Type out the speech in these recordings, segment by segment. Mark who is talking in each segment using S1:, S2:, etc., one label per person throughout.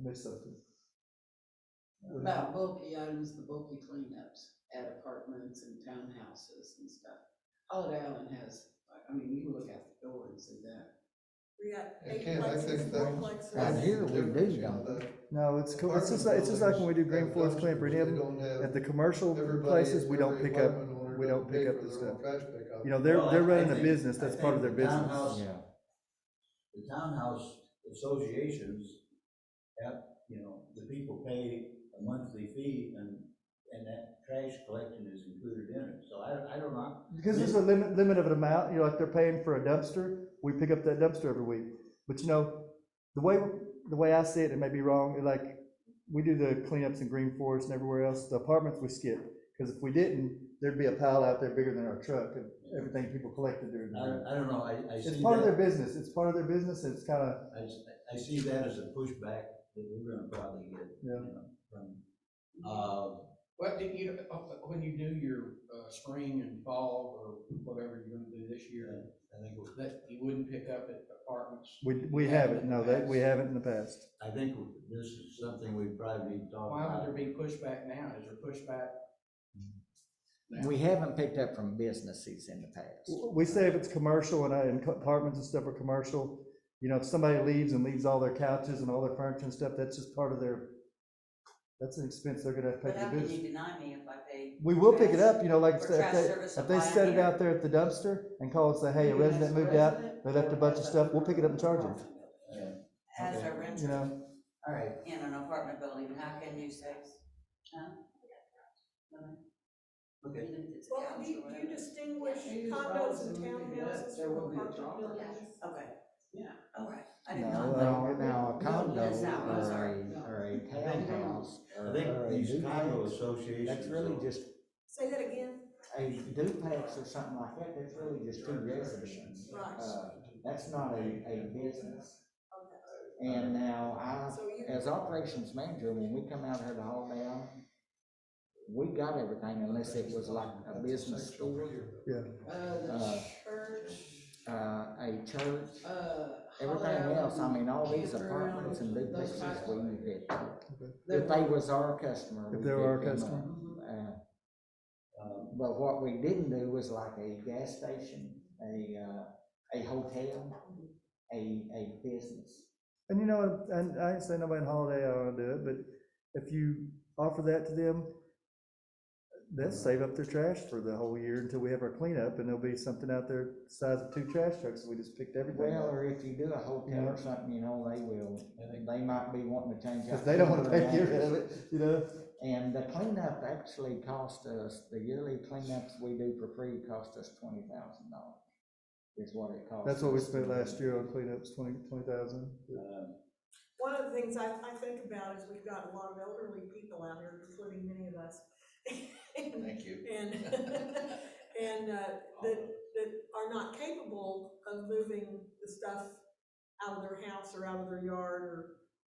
S1: mixed up. the-
S2: About bulky items, the bulky cleanups at apartments and townhouses and stuff. Holiday Island has, I- I mean, you look out the door and see that.
S3: We got eight
S4: Again, I
S3: plexes,
S4: think
S3: four
S4: that-
S5: Right
S3: plexes.
S5: here. we do,
S1: No, it's, co- it's just, like- it's just like when we do Green Forest Cleanup, any of them, at the commercial places, we don't pick up, we don't pick up the stuff. You know, they're,
S6: Well, I-
S1: they're
S6: I
S1: running a
S6: think-
S1: business,
S6: I
S1: that's part of their
S6: think the
S1: business.
S6: townhouse-
S5: Yeah.
S6: The townhouse associations have, you know, the people pay a monthly fee and, and that trash collection is included in it. So I, I don't know,
S1: Because there's a limit, limit of an amount, you know, like they're paying for a dumpster, we pick up that dumpster every week. But you know, the way, the way I see it, it may be wrong, like, we do the cleanups in Green Forest and everywhere else, the apartments we skip. Because if we didn't, there'd be a pile out there bigger than our truck of everything people collected during the
S6: I, I don't know, I, I see
S1: It's part of their
S6: that,
S1: business, it's part of their business, and it's kind of,
S6: I, s- I see that as a pushback that we're gonna probably get, you
S1: Yeah.
S6: know, from, uh,
S7: What do you, uh, when you do your, uh, spring and fall or whatever you're gonna do this year,
S6: I think, we're-
S7: that you wouldn't pick up at apartments?
S1: we, we haven't, no, that, we haven't in the past.
S6: I think this is something we probably need to talk
S7: Why would
S6: about.
S7: there be pushback now? Is there pushback? now?
S5: We haven't picked up from businesses in the past.
S1: We say if it's commercial and, I- and apartments and stuff are commercial, you know, if somebody leaves and leaves all their couches and all their furniture and stuff, that's just part of their, that's an expense they're gonna have to pay
S8: But how
S1: for the
S8: can you
S1: business.
S8: deny me if I pay?
S1: We will pick it
S8: trash?
S1: up, you know, like, I
S8: Or
S1: said,
S8: trash
S1: if
S8: service
S1: they, if they
S8: supply
S1: set it
S8: here.
S1: out there at the dumpster and call and say, hey, a
S7: Even as
S1: resident moved out,
S7: resident?
S1: they left a bunch of stuff, we'll pick it up and charge them,
S6: Yeah.
S8: As a
S6: Okay.
S1: you
S8: renter
S1: know?
S6: All right,
S8: in an apartment building, how can you say? huh?
S6: okay.
S8: Even if it's a
S3: Well,
S8: house
S3: do you,
S8: or
S3: do
S8: whatever.
S3: you distinguish
S2: Yeah, you just
S3: condos and
S7: probably wouldn't be that.
S3: townhouses
S7: There
S3: from
S7: wouldn't be a
S3: apartment
S7: drawback.
S3: buildings?
S8: Okay.
S7: Yeah.
S8: All right, I did not know.
S5: Now, now, a condo
S8: That's not what I
S5: or
S8: was
S5: a, or a townhouse or
S6: I
S5: or
S6: think
S5: a
S6: these condo
S5: duplex,
S6: associations.
S5: that's really
S6: are-
S5: just,
S3: Say that again,
S5: a duplex or something like that, that's really just two residences.
S3: Right.
S5: Uh, That's not a, a business.
S3: okay,
S5: And now I
S3: so you.
S5: as operations manager, when we come out here to haul down, we got everything unless it was like a business store,
S2: Uh, the
S5: Uh,
S2: church,
S5: uh, a church,
S2: uh. Holiday
S5: everything
S2: Island,
S5: else, I mean, all these
S2: campground,
S5: apartments and
S2: those
S5: duplexes,
S2: types.
S5: we picked.
S2: They're-
S5: If they was our customer.
S1: If
S5: we
S1: they were our
S5: picked them
S1: customer.
S5: up. Uh, um, But what we didn't do was like a gas station, a, uh, a hotel, a, a business.
S1: And you know, and I ain't saying nobody in Holiday Island do it, but if you offer that to them, they'll
S5: Mm-hmm.
S1: save up their trash for the whole year until we have our cleanup, and there'll be something out there the size of two trash trucks, we just picked everything
S5: Well,
S1: up.
S5: or if you do a hotel or something, you know, they will, they might be wanting to change. out
S1: Because they don't wanna
S5: the
S1: take care
S5: batteries.
S1: of it, you know?
S5: And the cleanup actually cost us, the yearly cleanups we do for free cost us twenty thousand dollars, is what it cost.
S1: That's what we
S5: us.
S1: spent last year on cleanups, twenty, twenty thousand.
S6: Um,
S3: One of the things I, I think about is we've got a lot of elderly people out here, including many of us. And,
S6: Thank you.
S3: and, and, uh, that, that are not capable of moving the stuff out of their house or out of their yard or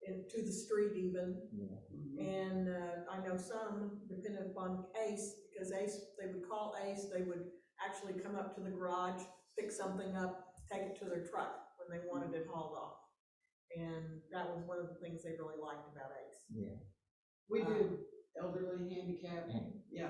S3: into the street even.
S5: Yeah.
S3: And uh, I know some, depending upon Ace, because Ace, they would call Ace, they would actually come up to the garage, pick something up, take it to their truck when they wanted it hauled off. And that was one of the things they really liked about Ace. Um,
S2: We did elderly handicapped, yeah.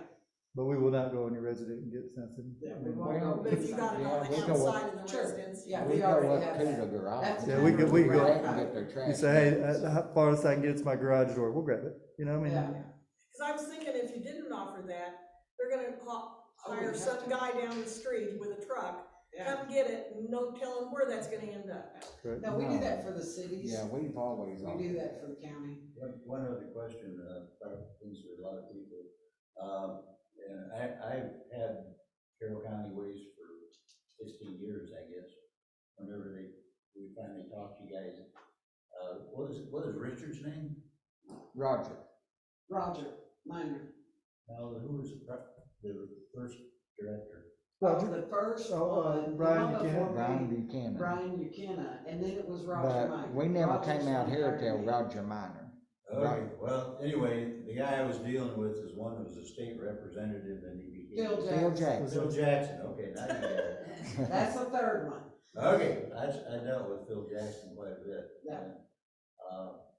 S1: But we will not go on your resident and get something.
S2: Yeah,
S1: I
S2: we
S1: mean,
S2: won't go-
S3: But if you got it on
S5: Yeah,
S3: the
S5: we go up-
S3: outside of the
S2: Sure.
S3: residence.
S2: Yeah,
S5: We
S2: we
S5: go
S2: already
S5: up
S2: have
S5: to the
S2: that. That's
S5: garage.
S2: the
S1: Yeah, we
S2: kind
S1: could-
S2: of
S1: we could go-
S2: route.
S5: They can get their trash.
S1: You say, hey, uh, the farthest I can get is my garage door, we'll grab it, you know, I mean,
S2: Yeah.
S3: Because I was thinking if you didn't offer that, they're gonna ha-
S2: Oh, we
S3: hire
S2: have
S3: some
S2: to.
S3: guy down the street with a truck,
S2: Yeah.
S3: come get it, and no telling where that's gonna end up.
S1: right?
S2: No, we do that for the cities.
S5: Yeah, we've always.
S2: We do that for the county.
S6: One, one other question, uh, probably things for a lot of people. Um, and I, I've had Carroll County Ways for fifteen years, I guess. Whenever they, we finally talked to you guys, uh, what is, what is Richard's name?
S5: Roger,
S2: Roger, minor.
S6: Now, who was the, pro- the first director?
S1: Roger.
S2: The first
S1: Oh, uh,
S2: one, the
S1: Brian
S2: one
S1: Buchanan.
S2: before me,
S5: Brian Buchanan.
S2: Brian Buchanan, and then it was Roger Minor.
S5: But we never
S2: Roger's
S5: came out
S2: the
S5: here
S2: third
S5: till
S2: man.
S5: Roger Minor.
S6: Okay, well, anyway, the guy I was dealing with is one that was a state representative and he became.
S2: Bill
S5: Bill
S2: Jackson,
S5: Jackson.
S6: Phil Jackson, okay, now you got it.
S2: that's the third one.
S6: Okay, I, I dealt with Phil Jackson quite a bit.
S2: Yeah.
S6: Uh,